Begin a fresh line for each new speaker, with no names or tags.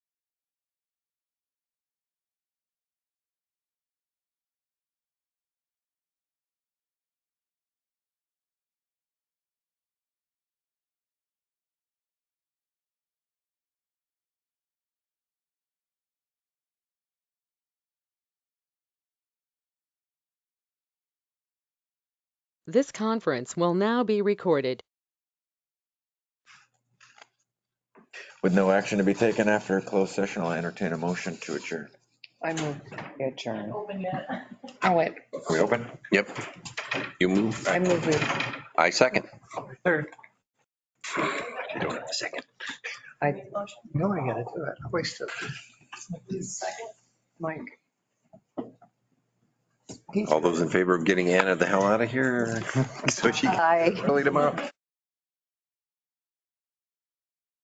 This conference will now be recorded.
With no action to be taken after a closed session, I'll entertain a motion to adjourn.
I move we adjourn. Oh, wait,
Are we open?
Yep. You move.
I move we,
I second.
third,
You don't have a second.
I,
No, I gotta do it. I wasted.
Mike,
All those in favor of getting Anna the hell out of here? So she can
aye.
early tomorrow.